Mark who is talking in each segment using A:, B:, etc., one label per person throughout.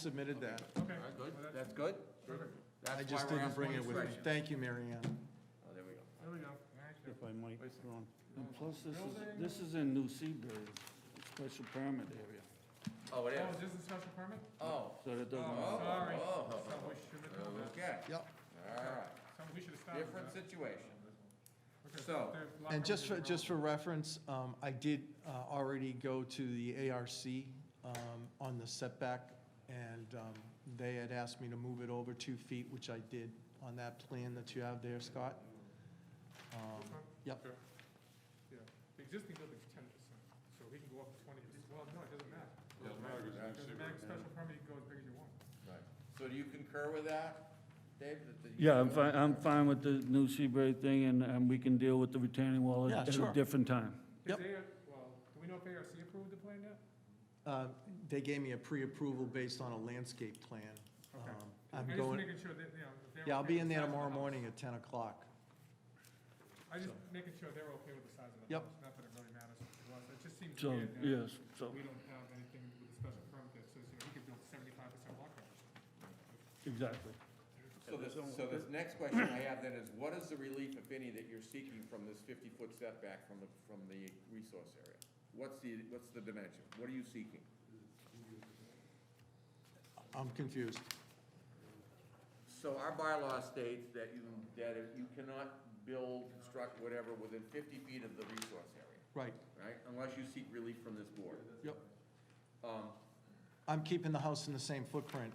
A: submitted that.
B: Okay.
C: All right,
B: Well,
C: good,
B: that's-
C: that's good?
B: Perfect.
A: I
C: That's
A: just
C: why we're
A: didn't bring it
C: asking
A: with me.
C: for
A: Thank you, Mary Ann.
C: Oh, there we go.
B: There we go. Nice.
D: If I might, Ron. And plus, this is,
B: Building.
D: this is in New Seabury, special permit area,
C: Oh, it
B: Oh, is
C: is?
B: this a special permit?
C: Oh,
D: so that
B: Oh,
D: doesn't,
B: sorry.
C: oh,
B: So we should have known that.
C: okay,
A: Yep.
C: all right.
B: So we should have started with
C: Different
B: that.
C: situation.
B: Okay,
C: So-
B: there's locker
A: And just for,
B: rooms
A: just for reference, um, I did uh, already go to the ARC um, on the setback, and um, they had asked me to move it over two feet, which I did on that plan that you have there, Scott. Um,
B: around.
A: Yep,
B: Sure. Yeah, the existing building's ten percent, so he can go up to twenty percent. Well, no, it doesn't matter.
E: Doesn't matter, 'cause it's in
B: Doesn't matter,
E: Seabury.
B: special permit, you can go as big as you want.
C: Right. So do you concur with that, Dave? that the-
D: yeah, I'm fine, I'm fine with the New Seabury thing, and, and we can deal with the retaining wall
A: Yeah,
D: at at
A: sure.
D: a different time.
B: Is
A: Yep.
B: they- well, do we know if ARC approved the plan yet?
A: Uh, they gave me a pre-approval based on a landscape plan.
B: Okay.
A: Um, I'm
B: just
A: going,
B: making sure that, you know, if they're.
A: yeah, I'll
B: okay
A: be
B: with
A: in
B: the
A: there
B: size of the
A: tomorrow
B: house.
A: morning at 10 o'clock.
B: I just making sure they're okay with the size of the
A: Yep.
B: house, not that it really matters to us. It just seems
D: So,
B: weird that
D: yes, so,
B: we don't have anything with a special permit that says, you know, he could build seventy-five percent lot coverage.
D: exactly.
C: So this, so this next question I have then is, what is the relief, if any, that you're seeking from this fifty-foot setback from the, from the resource area? What's the, what's the dimension? What are you seeking?
A: I'm confused.
C: So our bylaw states that you, that if you cannot build, construct, whatever, within fifty feet of the resource area,
A: Right,
C: right? Unless you seek relief from this board.
A: yep.
C: Um,
A: I'm keeping the house in the same footprint.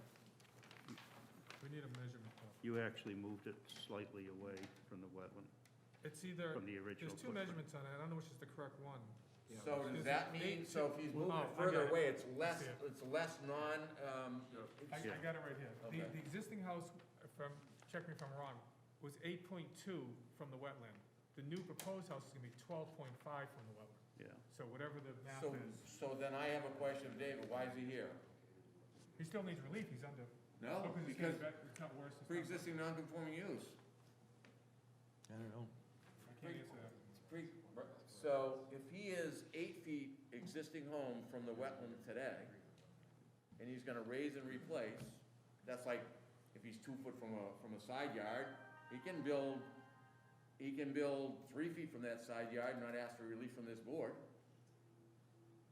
B: We need a measurement though.
F: You actually moved it slightly away from the wetland,
B: It's either,
F: from the
B: there's
F: original
B: two
F: footprint.
B: measurements on it, I don't know which is the correct one.
C: So does that mean, so if he's moving it
B: Oh, I got
C: further
B: it.
C: away, it's less,
B: see it.
C: it's less non, um,
B: I, I
F: Yeah.
B: got it right here.
C: Okay.
B: The, the existing house, if I'm, check me if I'm wrong, was eight point two from the wetland. The new proposed house is gonna be twelve point five from the wetland.
F: Yeah,
B: So whatever the map
C: so,
B: is,
C: so then I have a question of David, why is he here?
B: he still needs relief, he's under, oh,
C: No,
B: because it's
C: because
B: getting better, it's not worse. it's not-
C: pre-existing non-conforming use.
A: I don't know.
B: I can't answer that.
C: It's pre, so if he is eight feet existing home from the wetland today, and he's gonna raise and replace, that's like, if he's two foot from a, from a side yard, he can build, he can build three feet from that side yard and not ask for relief from this board.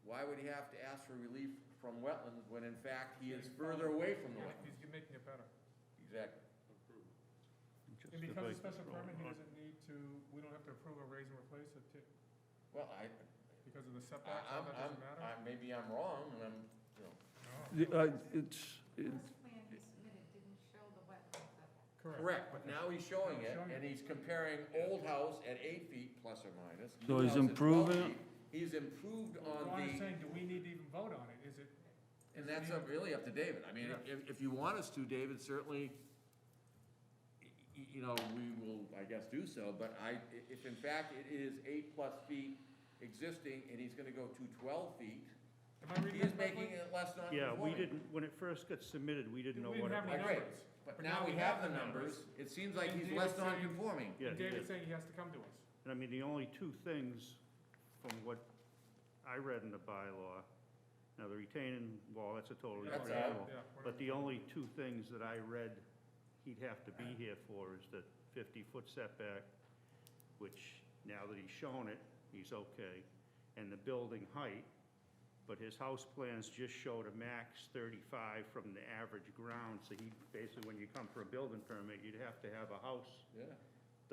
C: Why would he have to ask for relief from wetlands when in fact he is further away from the
B: Yeah,
C: wetland?
B: He's making it better.
C: Exactly.
F: just
B: And
F: the
B: because
F: big
B: of special
F: roll
B: permit, he
F: on.
B: doesn't need to, we don't have to approve a raise and replace it, too,
C: Well, I,
B: because of the
C: I,
B: setbacks,
C: I'm,
B: all that doesn't
C: I'm,
B: matter?
C: I- maybe I'm wrong, and I'm, you know.
B: No.
D: The- uh, It's, it's,
G: This plan he submitted didn't show the wetlands of it.
C: Correct, but now he's showing it,
B: Showing it.
C: and he's comparing old house at eight feet plus or minus.
D: So
C: new
D: he's
C: house at 12
D: improving-
C: feet. He's improved
B: Well,
C: on
B: I'm
C: the,
B: saying, do we need to even vote on it? Is it,
C: and that's up- really up to David. I mean,
B: Yeah.
C: if, if you want us to, David, certainly, y- y- you know, we will, I guess, do so, but I, i- if in fact it is eight plus feet existing, and he's gonna go to twelve feet,
B: am I
C: he
B: reading
C: is
B: that
C: making
B: correctly?
C: it less
F: Yeah, we
C: non-conforming.
F: didn't, when it first got submitted, we didn't know
B: We
F: what
B: didn't
F: it
B: have
C: I
B: any-
F: was.
C: agree,
B: numbers.
C: but now we have the numbers, it seems like
B: And
C: he's
B: David's
C: less
B: saying-
C: non-conforming.
F: Yeah, he
B: David's
F: did.
B: saying he has to come to us.
F: And I mean, the only two things from what I read in the bylaw, now the retaining wall, that's a totally
B: That's
F: different
C: out.
F: animal.
B: Yeah, we're not-
F: But the only two things that I read he'd have to be here for is the fifty-foot setback, which now that he's shown it, he's okay, and the building height. But his house plans just showed a max thirty-five from the average ground, so he, basically, when you come for a building permit, you'd have to have a house
C: Yeah.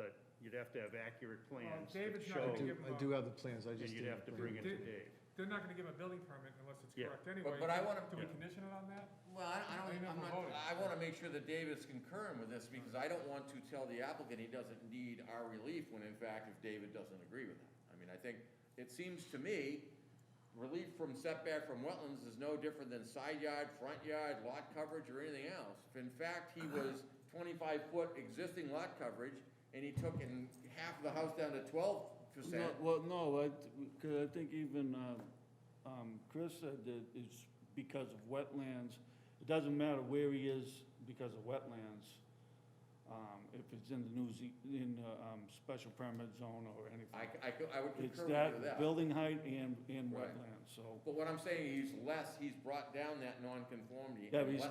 F: that, you'd have to have accurate plans that
B: David's not gonna
A: I
F: show,
B: give-
F: and
A: do, I do have the plans, I just.
F: you'd
A: didn't
F: have to
A: print
F: bring it to
B: Did-
F: Dave.
B: They're not gonna give a building permit unless it's
F: Yeah.
B: correct anyway.
C: but I wanna-
B: Do we
F: Yeah.
B: condition it on that?
C: Well, I I
B: Clean
C: don't,
B: up
C: I'm
B: the
C: not,
B: voting.
C: I want to make sure that David's concurring with this, because I don't want to tell the applicant he doesn't need our relief, when in fact, if David doesn't agree with that. I mean, I think, it seems to me, relief from setback from wetlands is no different than side yard, front yard, lot coverage, or anything else. If in fact, he was twenty-five foot existing lot coverage, and he took in half the house down to twelve
D: No,
C: percent,
D: well, no, I, because I think even, uh, um, Chris said that it's because of wetlands. It doesn't matter where he is because of wetlands, um, if it's in the New Ze- in the, um, special permit zone or
C: I,
D: anything.
C: I could- I would
D: It's
C: concur with you with
D: that
C: that.
D: building height and, and
C: Right.
D: wetlands, so.
C: But what I'm saying, he's less, he's brought down that nonconformity.
D: Yeah, but
C: and
D: he's
C: less